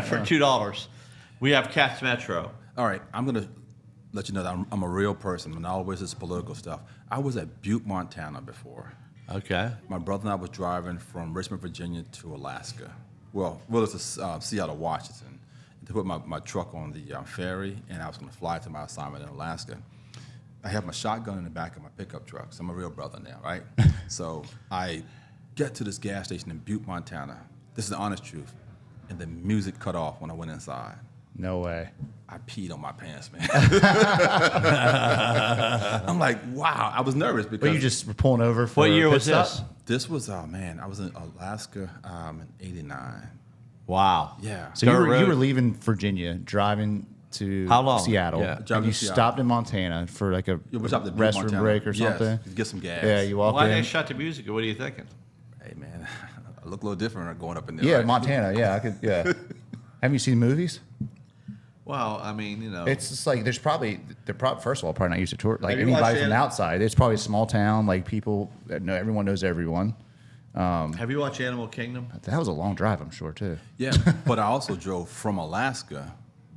for two dollars. We have Cats Metro. All right, I'm gonna let you know that I'm, I'm a real person, and always this political stuff. I was at Butte, Montana before. Okay. My brother and I was driving from Richmond, Virginia to Alaska. Well, well, it's uh, Seattle, Washington. To put my, my truck on the uh, ferry, and I was going to fly to my assignment in Alaska. I have my shotgun in the back of my pickup truck. So I'm a real brother now, right? so I get to this gas station in Butte, Montana. This is the honest truth. And the music cut off when I went inside. No way. I peed on my pants, man. I'm like, wow. I was nervous because But you just were pulling over for What year a pit was stop? this? This was oh man, I was in Alaska um, in '89. Wow. Yeah. So you Dirt were, you road. were leaving Virginia, driving to How long? Seattle. Yeah. And Driving you to Seattle. stopped in Montana for like a Yeah, we stopped at Butte, restroom Montana. break or Yes, something. to get some gas. Yeah, you walked Why in. they shut the music? What are you thinking? Hey man, I look a little different going up in there. yeah, right? Montana. Yeah, I could. Yeah. Have you seen movies? Well, I mean, you know, It's just like there's probably they're probably first of all probably not used to tour like Have you watched anybody from An- outside. It's probably a small town like people that know everyone knows everyone. have you watched Animal Kingdom? That was a long drive, I'm sure too. Yeah, but I also drove from Alaska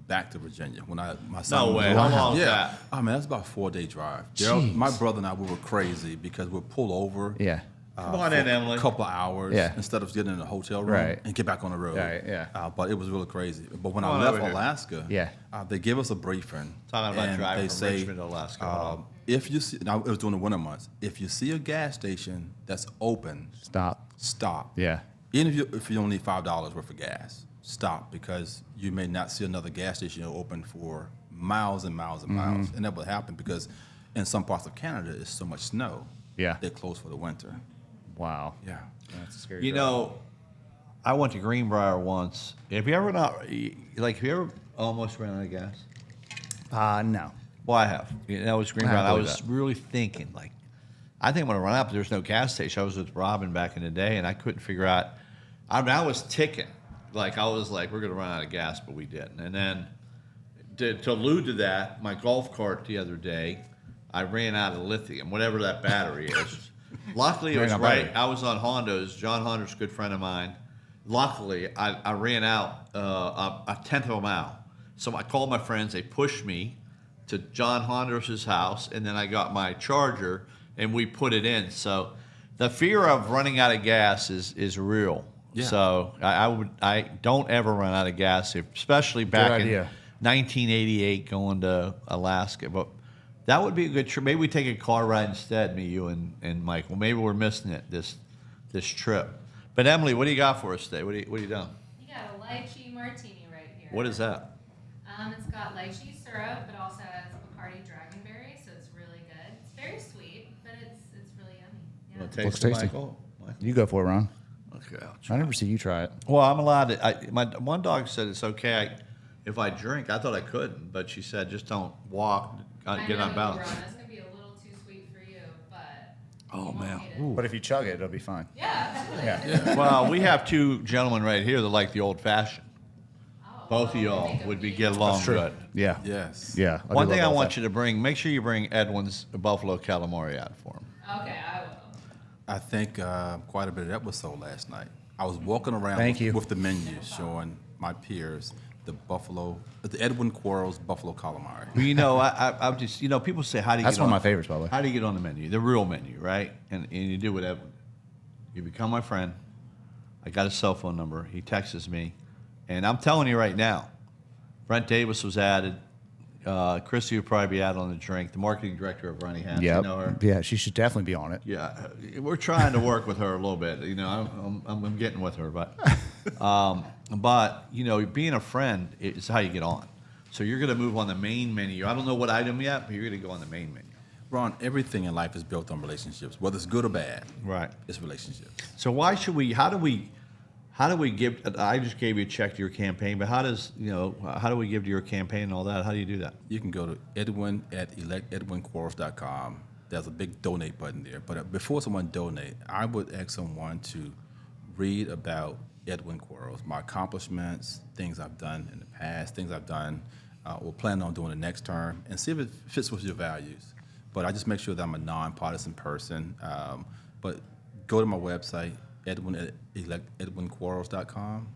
back to Virginia when I my son. was way. little. How long is yeah. that? I mean, that's about a four day drive. Gerald, Jeez. my brother and I we were crazy because we'd pull over. Yeah. Come on in, Emily. A Uh, couple of hours Yeah. instead of getting in a hotel room Right. and get back on the road. Right, yeah. Uh, but it was really crazy. But when Come I on left over here. Alaska, Yeah. uh, they gave us a briefing. Talking about and driving they from say, Richmond to Alaska. Oh, uh, if you see, now it was during the winter months. If you see a gas station that's open, Stop. stop. Yeah. Even if you if you only need five dollars worth of gas, stop because you may not see another gas station open for miles and miles and miles, Mm-hmm. and that will happen because in some parts of Canada it's so much snow. Yeah. they're closed for the winter. Wow. Yeah, That's a scary. You drive. know, I went to Greenbrier once. Have you ever not like? Have you ever almost ran out of gas? Uh no. Well, I have. And that was Greenbrier. I, believe was that. really thinking like, I think I'm gonna run out, but there's no gas station. I was with Robin back in the day, and I couldn't figure out. I mean, I was ticking. Like I was like, we're gonna run out of gas, but we didn't. And then to, to allude to that, my golf cart the other day, I ran out of lithium, whatever that battery is. Luckily, it Ran was out of right. battery. I was on Honda's. John Honda's a good friend of mine. Luckily, I, I ran out uh, a, a tenth of a mile. So I called my friends. They pushed me to John Honda's house, and then I got my charger and we put it in. So the fear of running out of gas is is real. Yeah. So I, I would I don't ever run out of gas, especially back in idea. 1988 going to Alaska. But that would be a good trip. Maybe we take a car ride instead, me, you, and, and Mike. Well, maybe we're missing it this this trip. But Emily, what do you got for us today? What do you, what do you done? You got a lychee martini right here. What is that? Um, it's got lychee syrup, but also has Bacardi dragonberry, so it's really good. It's very sweet, but it's it's really You wanna yummy. Yeah. taste Looks it, tasty. Michael? Michael? You go for it, Ron. Okay, I'll try. I never see you try it. Well, I'm allowed to. I, my one dog said it's okay I, if I drink. I thought I couldn't, but she said just don't walk, uh, I get know, on balance. Ron, that's gonna be a little too sweet for you, but. Oh, you won't man. hate it. But if you chug it, it'll be fine. Yeah, absolutely. well, we have two gentlemen right here that like the old fashioned. Oh, Both of well, I y'all think would be we- get along true. good. Yeah. yes, Yeah. do One love thing I all want that. you to bring, make sure you bring Edwin's Buffalo calamari out for him. Okay, I will. I think uh, quite a bit of that was sold last night. I was walking around Thank with, you. with the menu showing my peers the Buffalo, the Edwin Quarles Buffalo calamari. Well, you know, I, I, I'm just, you know, people say, how do you That's get one of on- my favorites, by the way. How do you get on the menu? The real menu, right? And, and you do what Edwin. You become my friend. I got his cell phone number. He texts me. And I'm telling you right now, Brent Davis was added. Uh, Chrissy would probably be out on the drink. The marketing director of Ronnie Hans, you Yep. know her. Yeah, she should definitely be on it. Yeah, uh, we're trying to work with her a little bit. You know, I'm, I'm, I'm getting with her, but, um, but you know, being a friend is how you get on. So you're going to move on the main menu. I don't know what item yet, but you're going to go on the main menu. Ron, everything in life is built on relationships, whether it's good or bad. Right. It's relationships. So why should we? How do we? How do we give? I just gave you a check to your campaign, but how does you know? How do we give to your campaign and all that? How do you do that? You can go to Edwin at electedwinquarles.com. There's a big donate button there. But uh, before someone donate, I would ask someone to read about Edwin Quarles, my accomplishments, things I've done in the past, things I've done uh, or plan on doing the next term, and see if it fits with your values. But I just make sure that I'm a nonpartisan person. Um, but go to my website, Edwin at electedwinquarles.com,